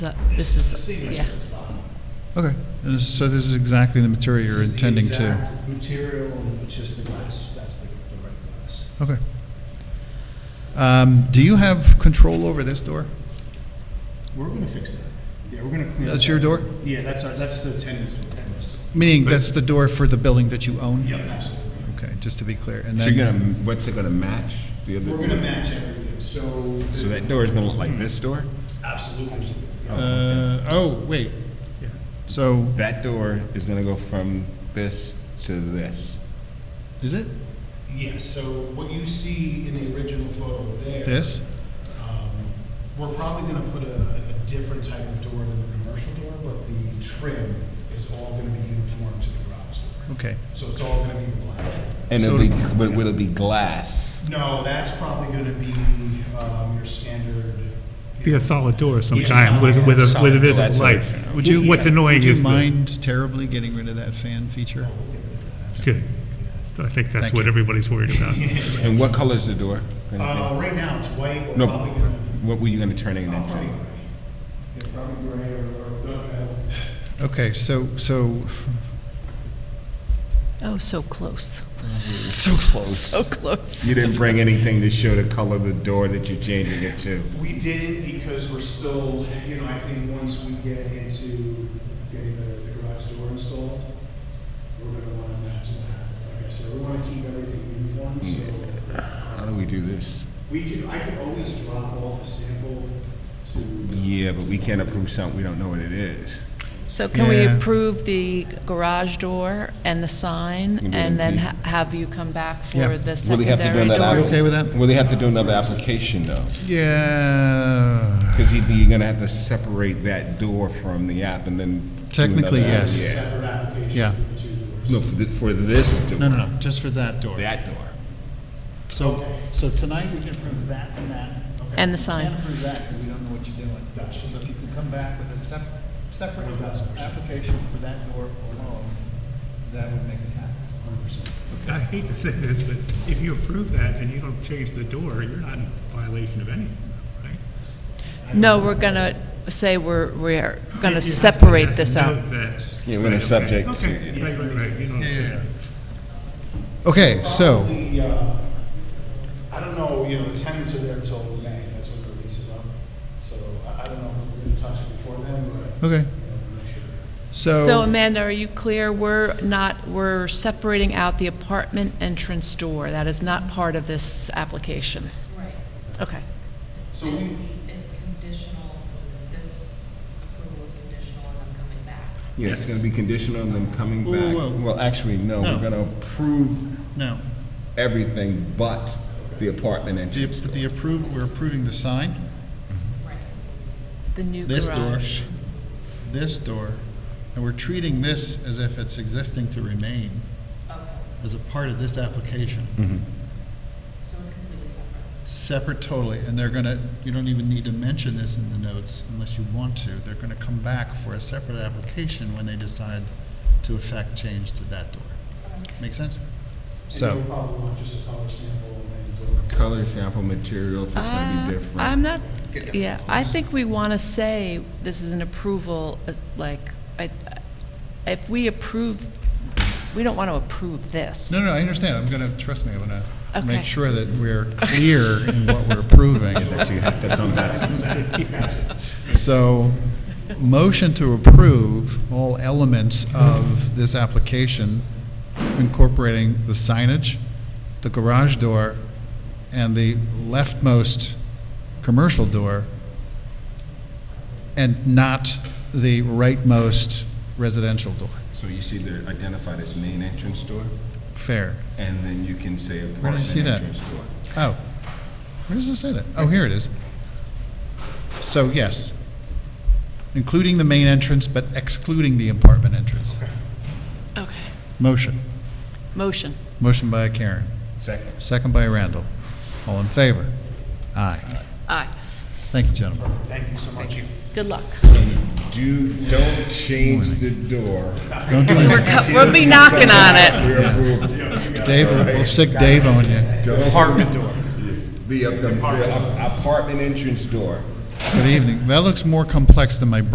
the, this is, yeah. Okay, And this- so this is exactly the material you're This is the intending to? exact Material, and it's just the glass, that's the, the right glass. Okay. Um, Do you have control over this door? We're gonna fix that. Yeah, we're gonna clean up. That's your that. door? Yeah, that's our, that's the tenants, tenants. Meaning that's the door for the building that you own? Yep, absolutely. Okay, just to be clear. And So you're then, gonna, what's it gonna match? The other? We're gonna match everything, so. So that door is gonna look like this door? Absolutely. Uh, oh, wait. So, That door is gonna go from this to this. is it Yeah, so what you see in the original photo there. this? um, We're probably gonna put a, a different type of door than the commercial door, but the trim is all gonna be uniform to the garage door. Okay. So it's all gonna be the black trim. And So it'll be, but will it be glass? No, that's probably gonna be, um, your standard. Be a solid door of some Yeah, kind with, with a, with a solid. That's visible what light. it should Would you, What's annoying would you is the, mind terribly getting rid of that fan feature? good. I think that's Thank what you. everybody's worried about. And what color is the door? gonna Uh, right now, it's white, be? we're No, probably gonna, what were you gonna turn it uh, into? probably gray. Yeah, probably gray or, or, uh, Okay, so, so, Oh, so close, So so close. You close. didn't bring anything to show the color of the door that you're changing it to? We didn't because we're still, you know, I think once we get into getting the, the garage door installed, we're gonna wanna match that. Like I said, we wanna keep everything uniform, so How do we do this? we could, I could always drop off a sample to. Yeah, but we can't approve something, we don't know what it is. So can we Yeah. approve the garage door and the sign, Can we and then leave? ha- have you come back Yeah. for the Will they have to do secondary another? You door? app- okay with that? Will they have to do another application though? yeah, Because you're gonna have to separate that door from the app and then. do Technically, another app. yes. Yeah. Separate Yeah. application for the two doors. No, for, thi- for this door. no, no, no, just for that door. That door. So, so tonight, we can approve that and that. And the sign. We can't approve that, because we don't know what you're doing. So if you can come back with a sep- separate application for that door alone, that would make us happy. I hate to say this, but if you approve that and you don't change the door, you're not in violation of anything, right? No, we're gonna say we're, we're You- you gonna have to- you separate have this to out. note that- Yeah, we're gonna Right, okay. subject to- Okay, right, right, right, you know what I'm saying. Okay, so, Probably, uh, I don't know, you know, the tenants are there until May, that's when the lease is up. So I, I don't know if we're gonna touch it before then, but, okay, you know, we'll make sure. So so, Amanda, are you clear? We're not, we're separating out the apartment entrance door. That is not part of this application. Right, Okay. So we, it's conditional, this approval is conditional on them coming back. Yeah, it's gonna be conditional on them coming Whoa, back. whoa, whoa. Well, actually, no, No. we're gonna approve no, everything but the apartment the, entrance the door. approve, we're approving the sign, The new this door, garage. this door, and we're treating this as if it's existing to remain as a part of this application. So it's completely separate. Separate totally, and they're gonna, you don't even need to mention this in the notes unless you want to. They're gonna come back for a separate application when they decide to effect change to that door. Make sense? and So, you'll probably want just a color sample and then. we'll- Color sample material, if it's gonna be Uh, different. I'm not, yeah, I think we want to say this is an approval, uh, like, I- if we approve, we don't want to approve this. no, no, I understand. I'm gonna, trust me, I'm gonna make Okay. sure that we're clear in what we're approving. That you have to come back. So, motion to approve all elements of this application incorporating the signage, the garage door, and the leftmost commercial door, and not the rightmost residential door. So you see they're identified as main entrance door, Fair. and then you can say Where did you apartment see that? entrance door. Oh, where does it say that? Oh, here it is. So, yes, including the main entrance, but excluding the apartment entrance. Okay. Motion. Motion. Motion by Karen, Second. second by Randall. All in favor? Aye. Aye. Thank you, gentlemen. Thank you so much. Good luck. Do, don't change the door. Don't do We're anything. co- We'll be knocking on it. We approve Dave, we'll stick Dave on you. Apartment door. The, the apartment entrance door. Good evening. That looks more complex than my